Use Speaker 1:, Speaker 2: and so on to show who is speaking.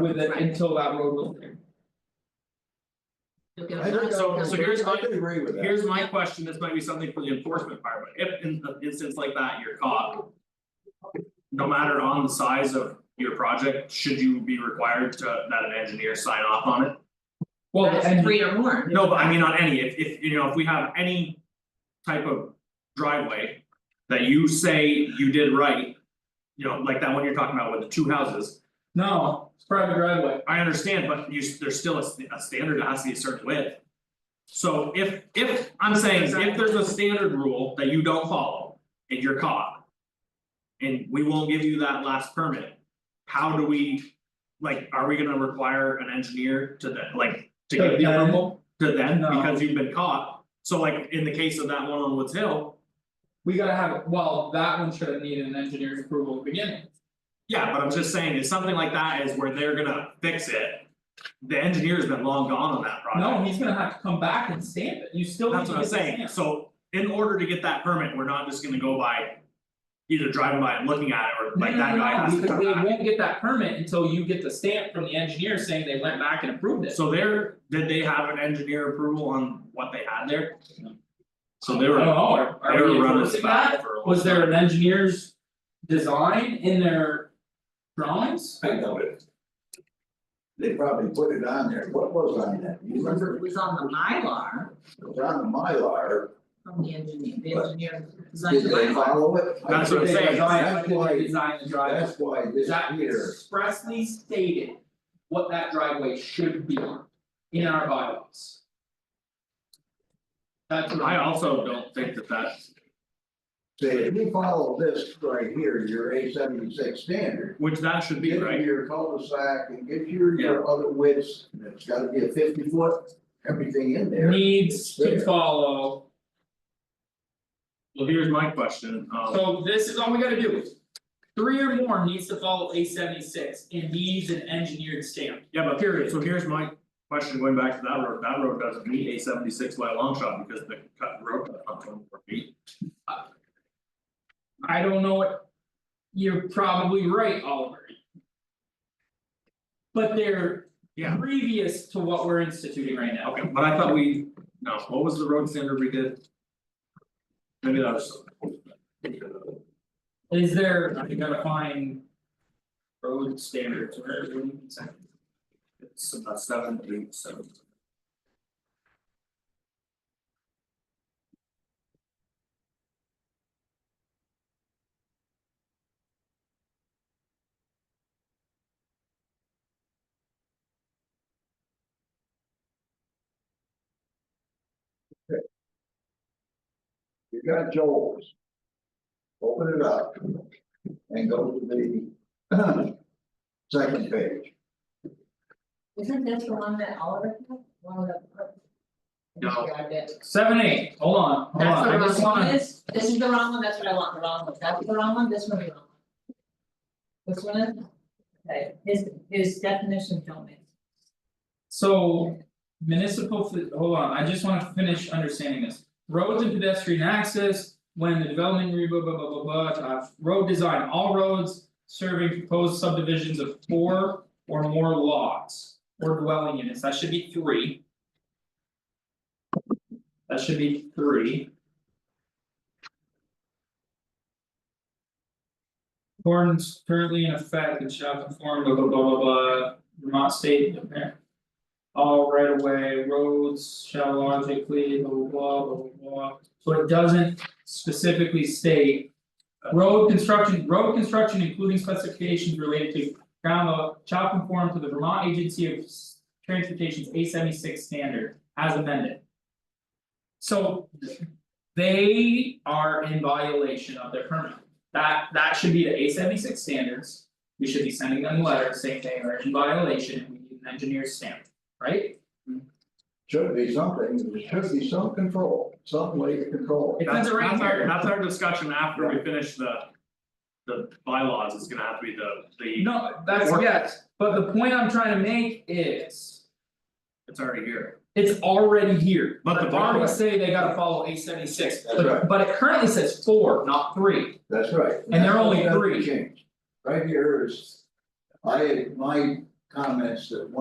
Speaker 1: with it until that road was there.
Speaker 2: You'll get
Speaker 1: I
Speaker 2: a-
Speaker 1: think
Speaker 3: So-
Speaker 1: I-
Speaker 3: so here's my-
Speaker 1: I can agree with that.
Speaker 3: Here's my question, this might be something for the enforcement department, if in an instance like that, you're caught. No matter on the size of your project, should you be required to, that an engineer sign off on it?
Speaker 1: Well,
Speaker 2: That's
Speaker 1: and
Speaker 2: three or more,
Speaker 3: No, but I mean on any, if if you know, if we have any. Type of driveway that you say you did right. You know, like that one you're talking about with the two houses,
Speaker 1: no, it's private driveway,
Speaker 3: I understand, but you, s- there's still a st- a standard that has to be a certain width. So if if, I'm saying, if there's a standard rule that you don't follow and you're caught. And we won't give you that last permit, how do we? Like, are we gonna require an engineer to then, like, to
Speaker 1: To
Speaker 3: give the
Speaker 1: then?
Speaker 3: approval to then,
Speaker 1: No.
Speaker 3: because you've been caught? So like, in the case of that one on Woods Hill,
Speaker 1: we gotta have, well, that one should have needed an engineer's approval at the beginning.
Speaker 3: yeah, but I'm just saying, if something like that is where they're gonna fix it. The engineer's been long gone on that project.
Speaker 1: No, he's gonna have to come back and stamp it, you still need
Speaker 3: That's
Speaker 1: to
Speaker 3: what I'm
Speaker 1: get the
Speaker 3: saying,
Speaker 1: stamp.
Speaker 3: so in order to get that permit, we're not just gonna go by. Either driving by and looking at it, or like that guy has to
Speaker 1: No,
Speaker 3: come
Speaker 1: no, no, because
Speaker 3: back.
Speaker 1: they won't get that permit until you get the stamp from the engineer saying they went back and approved it.
Speaker 3: So there, did they have an engineer approval on what they had there? So they
Speaker 1: I
Speaker 3: were,
Speaker 1: don't
Speaker 3: they
Speaker 1: know, are Oh, are we
Speaker 3: were running
Speaker 1: enforcing that?
Speaker 3: back for a long
Speaker 1: Was there
Speaker 3: time.
Speaker 1: an engineer's design in their drawings?
Speaker 4: I know it. They probably put it on there, what was on that, you
Speaker 2: because
Speaker 4: remember,
Speaker 2: it was on the Mylar
Speaker 4: it was on the Mylar,
Speaker 2: from the engineer, the
Speaker 4: But-
Speaker 2: engineer designed
Speaker 4: did
Speaker 2: the
Speaker 4: they
Speaker 2: Mylar.
Speaker 4: follow it? I
Speaker 3: That's what
Speaker 1: Did
Speaker 4: think
Speaker 3: I'm
Speaker 1: they
Speaker 3: saying.
Speaker 1: design-
Speaker 4: That's
Speaker 1: did they
Speaker 4: why-
Speaker 1: design the driveway?
Speaker 4: That's why this
Speaker 1: That
Speaker 4: here,
Speaker 1: expressly stated what that driveway should be in our bylaws. That's what
Speaker 3: I
Speaker 1: I,
Speaker 3: also don't think that that,
Speaker 4: say, if you follow this right here, your A seventy-six standard.
Speaker 3: which that should be,
Speaker 4: Get
Speaker 3: right?
Speaker 4: your cul-de-sac and get your your other widths, and it's gotta be a fifty foot, everything in there.
Speaker 1: needs to
Speaker 4: There.
Speaker 1: follow,
Speaker 3: Well, here's my question, um,
Speaker 1: so this is all we gotta do. Three or more needs to follow A seventy six and needs an engineered stamp.
Speaker 3: yeah, but period, so here's my question, going back to that road, that road doesn't meet A seventy six by a long shot, because the cut road cut up to four feet.
Speaker 1: I don't know what. You're probably right, Oliver. But they're
Speaker 3: Yeah.
Speaker 1: previous to what we're instituting right now.
Speaker 3: Okay, but I thought we, no, what was the road standard we did? Maybe that was.
Speaker 1: Is there, I gotta find. Road standards, where where do you say?
Speaker 3: It's about seven, eight, seven.
Speaker 4: You got Joel's. Open it up. And go to the. Second page,
Speaker 2: Isn't this the one that Oliver had, one of the?
Speaker 3: No.
Speaker 2: Grabbed it.
Speaker 1: Seven, eight, hold on, hold
Speaker 2: That's
Speaker 1: on,
Speaker 2: the
Speaker 1: I just
Speaker 2: wrong one,
Speaker 1: wanna,
Speaker 2: this, this is the wrong one, that's what I want, the wrong one, that's the wrong one, this one, the wrong one. This one is, okay, his his definition don't make.
Speaker 1: so municipal, fa- hold on, I just wanna finish understanding this. Roads and pedestrian access, when the development, re- blah, blah, blah, blah, blah, uh, road design, all roads. Serving proposed subdivisions of four or more lots or dwelling units, that should be three. That should be three. Ordinance currently in effect and shall conform blah blah blah blah blah Vermont State apparent. All right of way roads shall logically blah blah blah blah blah blah, so it doesn't specifically state. uh, Road construction, road construction including specifications related to ground law shall conform to the Vermont Agency of S- Transportation's A seventy six standard as amended. So they are in violation of their permit. That that should be the A seventy six standards. We should be sending them letters saying they are in violation and we need an engineer's stamp, right?
Speaker 4: should be something, there should be some control, some way to control it.
Speaker 1: It says it right
Speaker 3: That's- that's our-
Speaker 1: here.
Speaker 3: That's our discussion after we finish the. The bylaws, it's gonna have to be the the,
Speaker 1: No, that's
Speaker 3: Or-
Speaker 1: yes, but the point I'm trying to make is,
Speaker 3: it's already here,
Speaker 1: it's already here.
Speaker 3: But the
Speaker 1: They already
Speaker 3: bylaw-
Speaker 1: say they gotta follow A seventy six,
Speaker 4: That's
Speaker 1: but
Speaker 4: right.
Speaker 1: but it currently says four, not three.
Speaker 4: That's right.
Speaker 1: And they're only
Speaker 4: That's what
Speaker 1: three.
Speaker 4: changed. Right here is, I, my comments that one